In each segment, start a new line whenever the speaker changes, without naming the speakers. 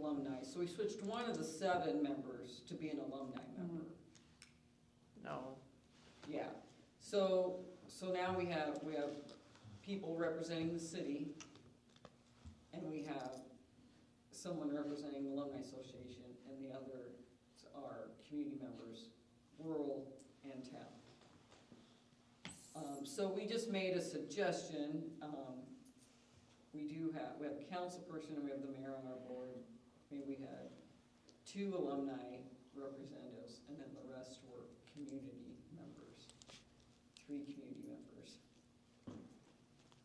alumni, so we switched one of the seven members to be an alumni member.
No,
Yeah, so, so now we have, we have people representing the city, and we have someone representing the alumni association, and the others are community members, rural and town. Um, so we just made a suggestion, um, we do have, we have a council person and we have the mayor on our board. Maybe we had two alumni representatives, and then the rest were community members, three community members.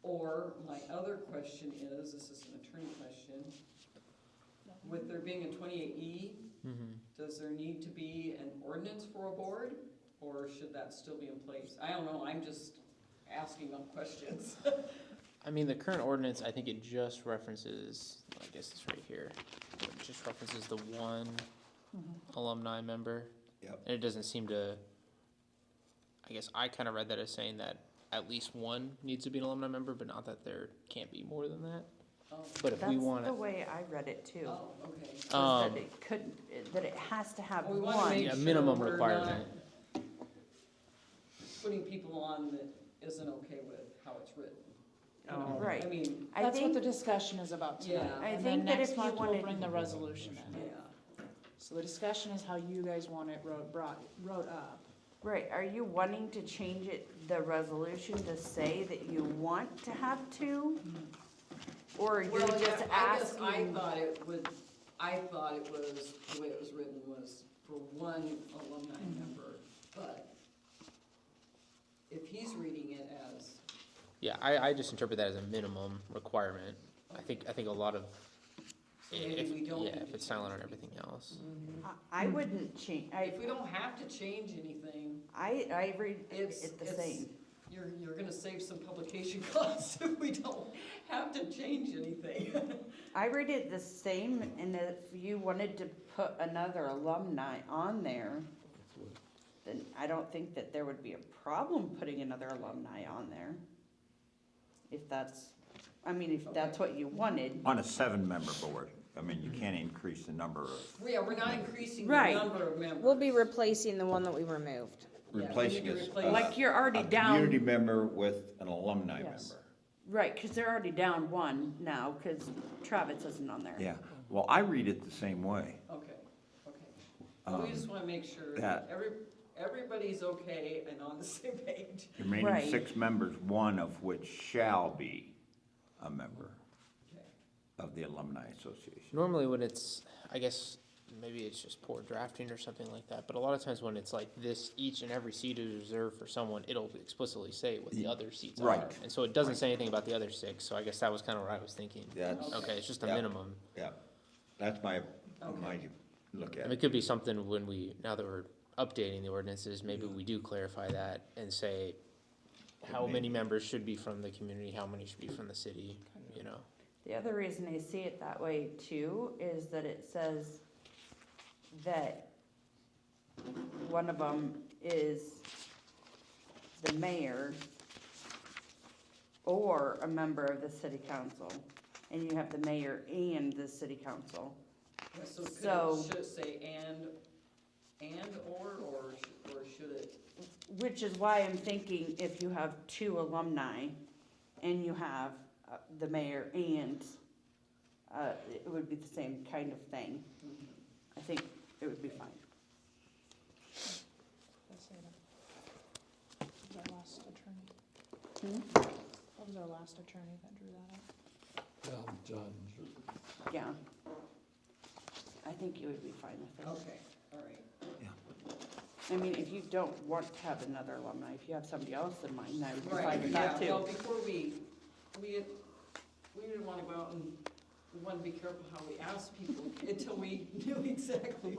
Or, my other question is, this is an attorney question, with there being a twenty-eight E,
Mm-hmm.
does there need to be an ordinance for a board, or should that still be in place? I don't know, I'm just asking them questions.
I mean, the current ordinance, I think it just references, I guess it's right here, it just references the one
Mm-hmm.
alumni member.
Yep.
And it doesn't seem to, I guess I kind of read that as saying that at least one needs to be an alumni member, but not that there can't be more than that.
Oh,
But if
that's
we want
the
to,
way I read it too.
oh, okay.
was
Um,
That it could, that it has to have
We wanna make-
one.
yeah, minimum
Sure, we're
requirement.
Putting people on that isn't okay with how it's written.
Oh, Right.
I mean,
I
That's what the
think,
discussion is about tonight.
Yeah. I
And
think
then
that
next
if you
month we'll
wanted-
bring the resolution
yeah,
in. So the discussion is how you guys want it wrote, brought, wrote up.
right, are you wanting to change it, the resolution to say that you want to have two? Or are you
Well,
just
yeah, I guess I
asking?
thought it would, I thought it was, the way it was written was for one alumni member, but if he's reading it as,
yeah, I, I just interpret that as a minimum requirement. I think, I think a lot of,
so
if,
maybe we don't.
yeah,
need
if
to
it's silent on
change
everything else.
I- I wouldn't change,
anything.
I,
If we don't have to change anything,
I, I read
it's,
it the
it's-
same.
You're, you're gonna save some publication costs if we don't have to change anything.
I read it the same, and if you wanted to put another alumni on there, then I don't think that there would be a problem putting another alumni on there. If that's, I mean, if that's what you wanted.
On a seven-member board, I mean, you can't increase the number of,
Yeah, we're not increasing the
Right.
number of members.
We'll be replacing the one that we removed.
Yeah, we need
replacing
to
is,
replace-
uh,
Like, you're already
a community
down,
member with an alumni
Yes.
member.
right, because they're already down one now, because Travis isn't on there.
Yeah, well, I read it the same way.
Okay, okay. Well, We just wanna make sure that
that-
every, everybody's okay and on the same page.
The Remaining
Right.
six members, one of which shall be a member
Okay.
of the alumni association.
Normally when it's, I guess, maybe it's just poor drafting or something like that, but a lot of times when it's like this, each and every seat is reserved for someone, it'll explicitly say what the
Ye-
other seats are.
right,
And so it doesn't say anything about the other six, so I guess that was kind of what I was thinking.
That's,
Okay, it's just a
Yeah.
minimum.
yeah, that's my, my look at
And it
it.
could be something when we, now that we're updating the ordinances, maybe
Mm-hmm.
we do clarify that and say how many members should be from the community, how many should be from the city, you know?
The other reason I see it that way too is that it says that one of them is the mayor or a member of the city council, and you have the mayor and the city council.
Yeah, So
So-
could, should it say and, and or, or, sh- or should it,
Which is why I'm thinking if you have two alumni and you have uh, the mayor and, uh, it would be the same kind of thing. I think it would be fine.
That was our last attorney. Hmm? That was our last attorney that drew that up.
Well done.
Yeah. I think you would be fine with it.
okay, all right.
I mean, if you don't want to have another alumni, if you have somebody else in mind, I would be
Right,
fine with
yeah,
that too.
Well, before we, we, we didn't wanna go out and, we wanna be careful how we ask people until we knew exactly.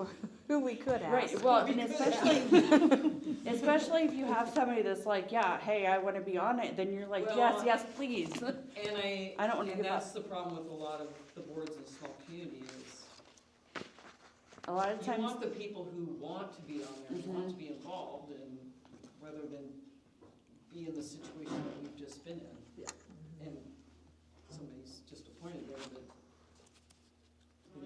Who we could ask.
Right, well,
We
and
could
especially, especially if you have somebody that's like, yeah, hey, I wanna be on it, then you're like,
Well,
yes, yes, please.
And I,
I don't wanna
and
give up.
that's the problem with a lot of the boards in small communities is
A lot of
You
times, Mm-hmm.
want the people who want to be on there, who want to be involved, and rather than be in the situation that we've just been in. And somebody's just appointed there, but